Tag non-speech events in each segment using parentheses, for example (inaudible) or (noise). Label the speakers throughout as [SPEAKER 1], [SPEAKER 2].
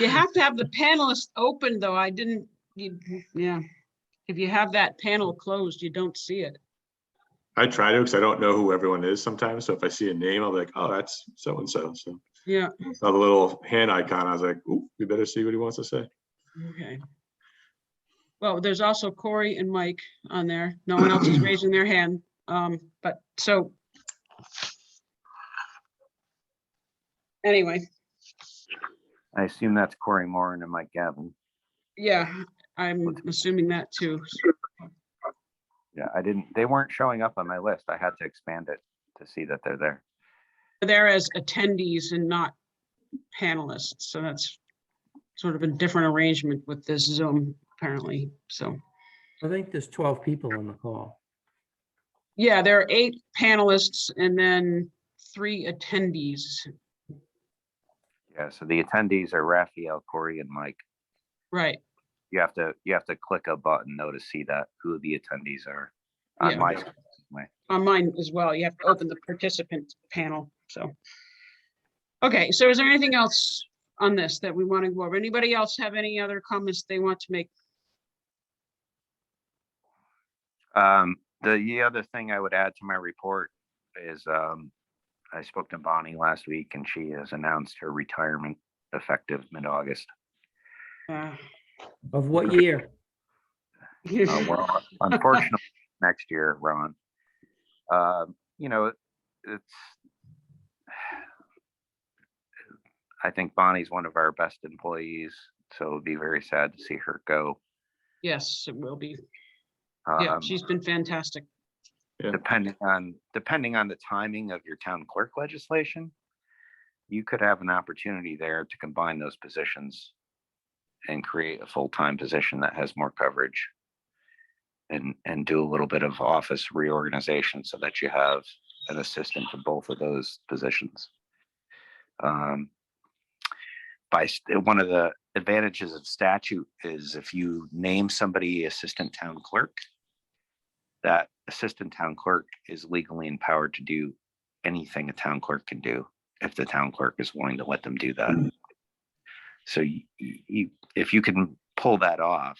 [SPEAKER 1] You have to have the panelists open, though. I didn't, you, yeah. If you have that panel closed, you don't see it.
[SPEAKER 2] I try to, because I don't know who everyone is sometimes. So if I see a name, I'll be like, oh, that's so-and-so. So
[SPEAKER 1] Yeah,
[SPEAKER 2] I saw the little hand icon. I was like, ooh, we better see what he wants to say.
[SPEAKER 1] okay. Well, there's also Corey and Mike on there. No one else is raising their hand. Um, but so. Anyway,
[SPEAKER 3] I assume that's Corey Moran and Mike Gavin.
[SPEAKER 1] yeah, I'm assuming that too.
[SPEAKER 3] Yeah, I didn't, they weren't showing up on my list. I had to expand it to see that they're there.
[SPEAKER 1] They're as attendees and not panelists, so that's sort of a different arrangement with this Zoom apparently, so.
[SPEAKER 4] I think there's 12 people on the call.
[SPEAKER 1] Yeah, there are eight panelists and then three attendees.
[SPEAKER 3] Yeah, so the attendees are Raphael, Corey, and Mike.
[SPEAKER 1] Right,
[SPEAKER 3] You have to, you have to click a button though to see that who the attendees are
[SPEAKER 1] Yeah.
[SPEAKER 3] on my.
[SPEAKER 1] on mine as well. You have to open the participant panel, so. Okay, so is there anything else on this that we want to go over? Anybody else have any other comments they want to make?
[SPEAKER 3] Um, the, the other thing I would add to my report is, um, I spoke to Bonnie last week and she has announced her retirement effective mid-August.
[SPEAKER 1] Uh,
[SPEAKER 4] Of what year?
[SPEAKER 3] Uh,
[SPEAKER 1] (laughs)
[SPEAKER 3] well, unfortunately, next year, Ron. Um, you know, it's. I think Bonnie's one of our best employees, so it'd be very sad to see her go.
[SPEAKER 1] Yes, it will be. Yeah,
[SPEAKER 3] Um,
[SPEAKER 1] she's been fantastic.
[SPEAKER 3] Depending on, depending on the timing of your town clerk legislation, you could have an opportunity there to combine those positions and create a full-time position that has more coverage. And, and do a little bit of office reorganization so that you have an assistant to both of those positions. Um, By, st- one of the advantages of statute is if you name somebody assistant town clerk, that assistant town clerk is legally empowered to do anything a town clerk can do if the town clerk is willing to let them do that.
[SPEAKER 2] Mm.
[SPEAKER 3] So you, you, if you can pull that off,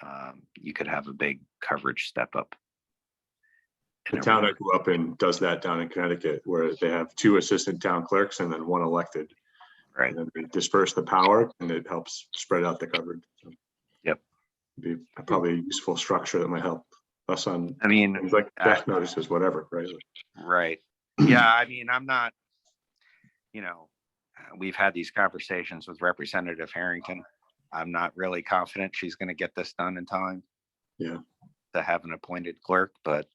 [SPEAKER 3] um, you could have a big coverage step up.
[SPEAKER 2] The
[SPEAKER 3] in a
[SPEAKER 2] town I
[SPEAKER 3] real-
[SPEAKER 2] grew up in does that down in Connecticut, where they have two assistant town clerks and then one elected.
[SPEAKER 3] Right.
[SPEAKER 2] And then they disperse the power and it helps spread out the coverage. So,
[SPEAKER 3] Yep.
[SPEAKER 2] Be probably a useful structure that might help us on
[SPEAKER 3] I mean.
[SPEAKER 2] things like
[SPEAKER 3] uh,
[SPEAKER 2] death notices, whatever, right? Like,
[SPEAKER 3] Right. Yeah, I mean, I'm not, you know, uh, we've had these conversations with Representative Harrington. I'm not really confident she's gonna get this done in time.
[SPEAKER 2] Yeah.
[SPEAKER 3] To have an appointed clerk, but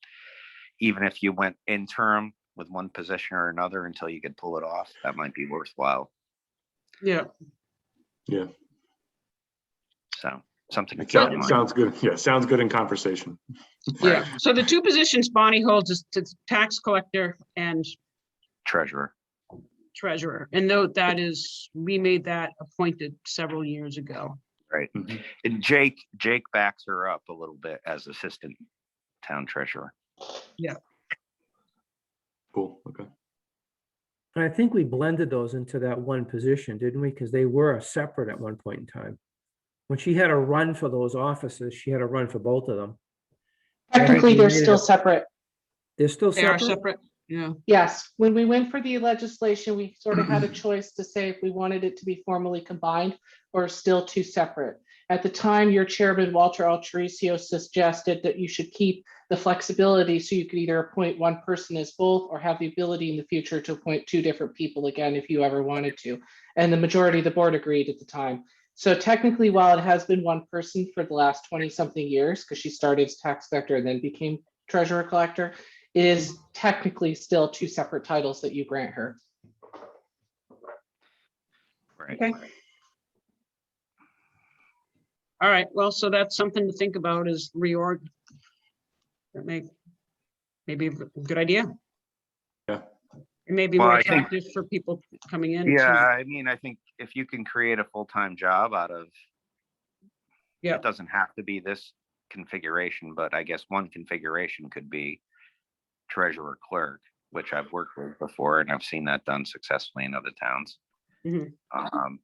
[SPEAKER 3] even if you went interim with one position or another until you could pull it off, that might be worthwhile.
[SPEAKER 1] Yeah,
[SPEAKER 3] So something. to
[SPEAKER 2] it
[SPEAKER 3] keep in
[SPEAKER 2] sounds-
[SPEAKER 3] mind.
[SPEAKER 2] Sounds good. Yeah, sounds good in conversation.
[SPEAKER 1] yeah. So the two positions Bonnie holds is to tax collector and
[SPEAKER 3] Treasurer.
[SPEAKER 1] treasurer. And though that is, we made that appointed several years ago.
[SPEAKER 3] And Jake, Jake backs her up a little bit as assistant town treasurer.
[SPEAKER 2] Cool, okay.
[SPEAKER 4] And I think we blended those into that one position, didn't we? Because they were separate at one point in time. When she had a run for those offices, she had a run for both of them.
[SPEAKER 5] Technically,
[SPEAKER 4] Right.
[SPEAKER 5] they're still separate.
[SPEAKER 4] They're still
[SPEAKER 1] They are
[SPEAKER 4] separate.
[SPEAKER 1] separate, yeah.
[SPEAKER 5] Yes, when we went for the legislation, we sort of had a choice to say if we wanted it to be formally combined or still two separate. At the time, your chairman, Walter Altricio, suggested that you should keep the flexibility so you could either appoint one person as both or have the ability in the future to appoint two different people again if you ever wanted to. And the majority of the board agreed at the time. So technically, while it has been one person for the last 20-something years, because she started as tax collector and then became treasurer collector, it is technically still two separate titles that you grant her.
[SPEAKER 3] Right.
[SPEAKER 1] Okay. All right, well, so that's something to think about is reorg. That may, maybe a good idea.
[SPEAKER 2] Yeah.
[SPEAKER 1] It may be
[SPEAKER 3] Well,
[SPEAKER 1] more
[SPEAKER 3] I think-
[SPEAKER 1] attractive for people coming in. to-
[SPEAKER 3] Yeah, I mean, I think if you can create a full-time job out of.
[SPEAKER 1] Yep.
[SPEAKER 3] It doesn't have to be this configuration, but I guess one configuration could be treasurer clerk, which I've worked with before and I've seen that done successfully in other towns.
[SPEAKER 1] Mhm.
[SPEAKER 3] Um,